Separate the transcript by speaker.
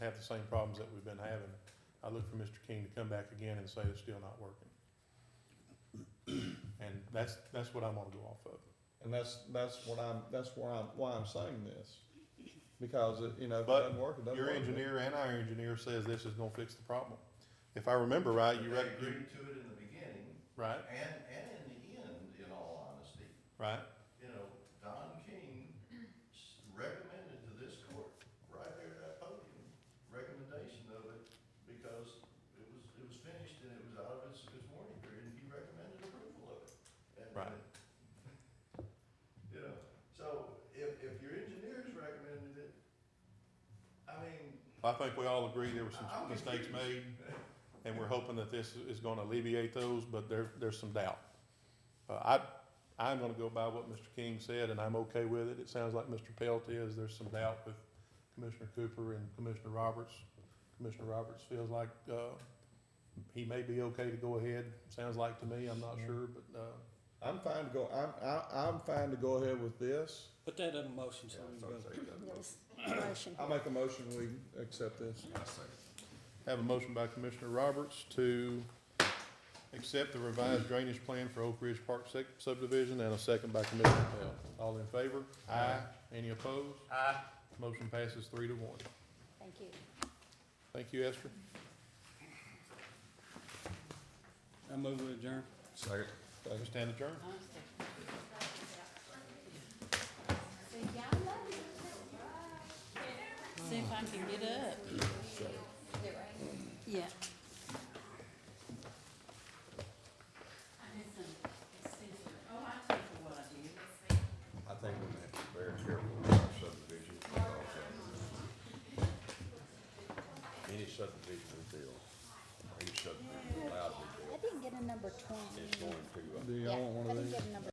Speaker 1: have the same problems that we've been having. I look for Mr. King to come back again and say it's still not working. And that's, that's what I'm gonna go off of.
Speaker 2: And that's, that's what I'm, that's why I'm, why I'm saying this. Because it, you know, if it
Speaker 1: But
Speaker 2: doesn't work, it doesn't
Speaker 1: Your
Speaker 2: work.
Speaker 1: engineer and our engineer says this is gonna fix the problem. If I remember right, you
Speaker 3: They
Speaker 1: read,
Speaker 3: agreed to it in the beginning
Speaker 1: right,
Speaker 3: and, and in the end, in all honesty.
Speaker 1: right,
Speaker 3: You know, Don King s- recommended to this court, right there at that podium, recommendation of it because it was, it was finished and it was out of its, its warning period and he recommended approval of it. And- uh,
Speaker 1: Right.
Speaker 3: You know, so if, if your engineers recommended it, I mean,
Speaker 1: I think we all agree there were some
Speaker 3: I'm
Speaker 1: mistakes made,
Speaker 3: confused.
Speaker 1: and we're hoping that this is gonna alleviate those, but there, there's some doubt. Uh, I, I'm gonna go by what Mr. King said, and I'm okay with it. It sounds like Mr. Pelt is, there's some doubt with Commissioner Cooper and Commissioner Roberts. Commissioner Roberts feels like, uh, he may be okay to go ahead, sounds like to me, I'm not sure, but, uh,
Speaker 2: I'm fine to go, I'm, I, I'm fine to go ahead with this.
Speaker 4: Put that in motion, so we can go.
Speaker 5: That was the motion.
Speaker 2: I make a motion, we accept this.
Speaker 1: Have a motion by Commissioner Roberts to accept the revised drainage plan for Oak Ridge Park sec- subdivision and a second by Commissioner Pell. All in favor? Aye. Any opposed? Aye. Motion passes three to one.
Speaker 5: Thank you.
Speaker 1: Thank you, Esther.
Speaker 4: I move with adjourn.
Speaker 2: Second.
Speaker 1: We stand adjourned.
Speaker 6: See if I can get up. Yeah. I did some extension. Oh, I took what I did.
Speaker 3: I think we have to be very careful with our subdivision. because, uh, Any subdivision we build, or any subdivision allowed to be built,
Speaker 5: I didn't get a number
Speaker 3: is
Speaker 5: twenty.
Speaker 3: going to, uh,
Speaker 2: Do
Speaker 5: Yeah,
Speaker 2: y'all want one
Speaker 5: I
Speaker 2: of
Speaker 5: didn't
Speaker 2: these?
Speaker 5: get a number